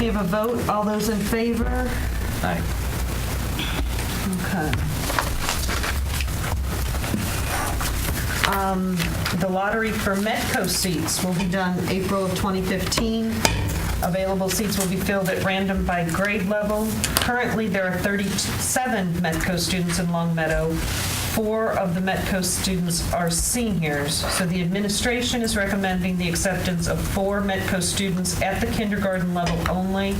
We have a vote. All those in favor? Aye. Okay. Um, The lottery for Metco seats will be done April of 2015. Available seats will be filled at random by grade level. Currently, there are 37 Metco students in Long Meadow. Four of the Metco students are seniors, so the administration is recommending the acceptance of four Metco students at the kindergarten level only.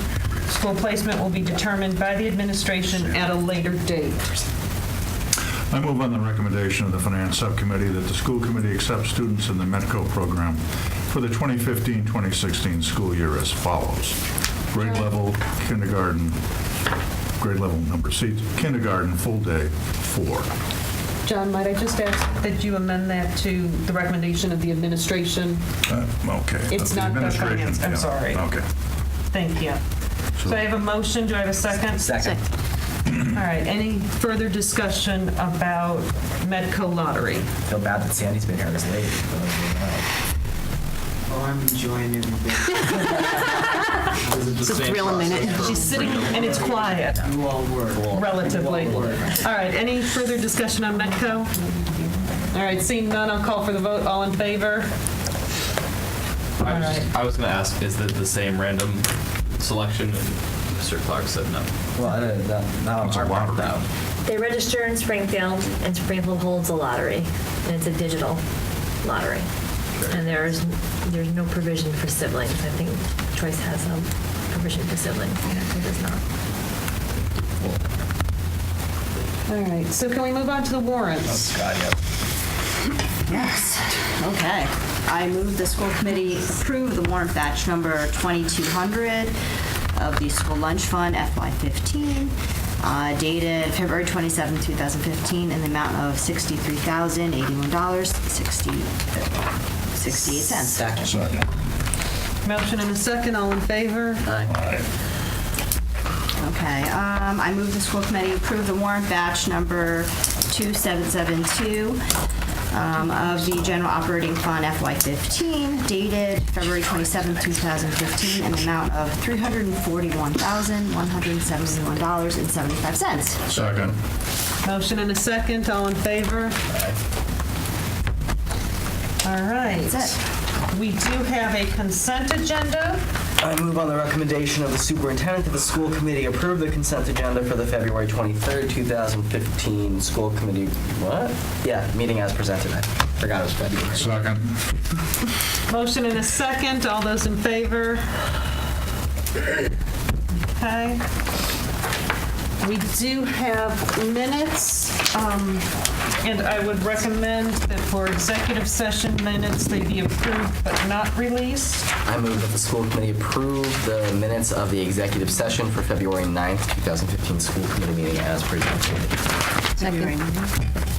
School placement will be determined by the administration at a later date. I move on the recommendation of the Finance Subcommittee that the school committee accept students in the METCO program for the 2015-2016 school year as follows. Grade level kindergarten, grade level number seats, kindergarten full day, four. John, might I just ask that you amend that to the recommendation of the administration? Uh, Okay. It's That's not the the administration, finance, I'm yeah. sorry. Okay. Thank you. So I have a motion, do I have a second? Second. All right, any further discussion about Medco lottery? Feel bad that Sandy's been here this late. Oh, I'm enjoying everything. It's Same thrill a minute. process for- She's sitting, and it's quiet, You all were. relatively. You all All were. right, any further discussion on Medco? All right, seeing none, I'll call for the vote, all in favor? I was, Alright. just, I was gonna ask, is that the same random selection? And Mr. Clark said no. Well, I don't- that- not on It's a our part, lottery. though. They register in Springfield, and Springfield holds a lottery, and it's a digital lottery. And there's, there's no provision for siblings. I think Choice has a provision for siblings, and it does not. All right, so can we move on to the warrants? God, yeah. Yes, okay. I move the school committee approve the warrant batch number 2200 of the school lunch fund FY15, uh, dated February 27, 2015, in the amount of $63,081.68. Second. Motion and a second, all in favor? Okay, um, I move the school committee approve the warrant batch number 2772 um, of the general operating fund FY15 dated February 27, 2015, in the amount of $341,171.75. Second. Motion and a second, all in favor? All right. That's We do have a consent agenda. I move on the recommendation of the superintendent that the school committee approve the consent agenda for the February 23rd, 2015 school committee, what? Yeah, meeting as presented. I forgot it was February. Second. Motion and a second, all those in favor? Okay. We do have minutes, um, and I would recommend that for executive session minutes, they be approved but not released. I move that the school committee approve the minutes of the executive session for February 9th, 2015 school committee meeting as presented.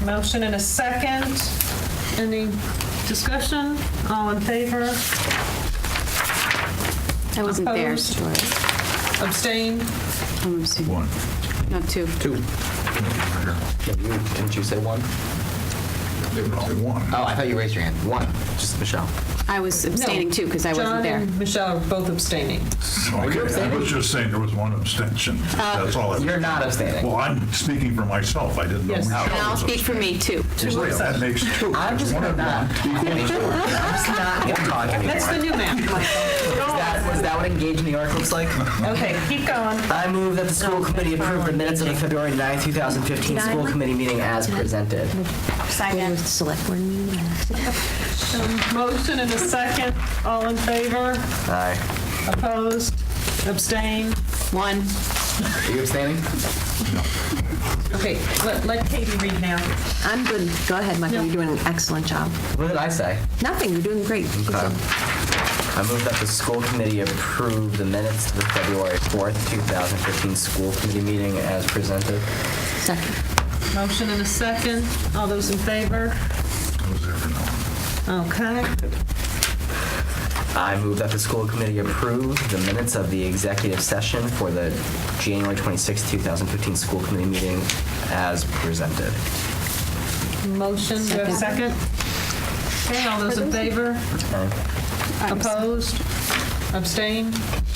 Motion and a second. Any discussion? All in favor? I wasn't there, Opposed? Stuart. Abstain? I'm abstaining. One. No, two. Two. Yeah, you- Didn't you say one? One. Oh, I thought you raised your hand. One, just Michelle. I was abstaining too, because I John wasn't there. and Michelle are both abstaining. Okay, I was just saying there was one abstention. That's all. I was- You're not abstaining. Well, I'm speaking for myself. I didn't know. Yes. Michelle And I'll was speak for me too. abstaining. Wait, That makes two. I'm There's just one gonna of not. one equals two. I'm just not gonna talk anymore. That's the new map. Is that, is that what Engage New York looks like? Okay, keep going. I move that the school committee approve the minutes of the February 9th, 2015 school committee meeting as presented. Second. Select board meeting. Motion and a second. All in favor? Aye. Opposed? Abstain? One. Are you abstaining? Okay, let let Katie read now. I'm good. Go ahead, Michael. You're doing an excellent job. What did I say? Nothing. You're doing great. Good job. I move that the school committee approve the minutes of the February 4th, 2015 school committee meeting as presented. Second. Motion and a second. All those in favor? I was there for no one. Okay. I move that the school committee approve the minutes of the executive session for the January 26th, 2015 school committee meeting as presented. Motion, do I have a second? Okay, all those in favor? Opposed? Abstain?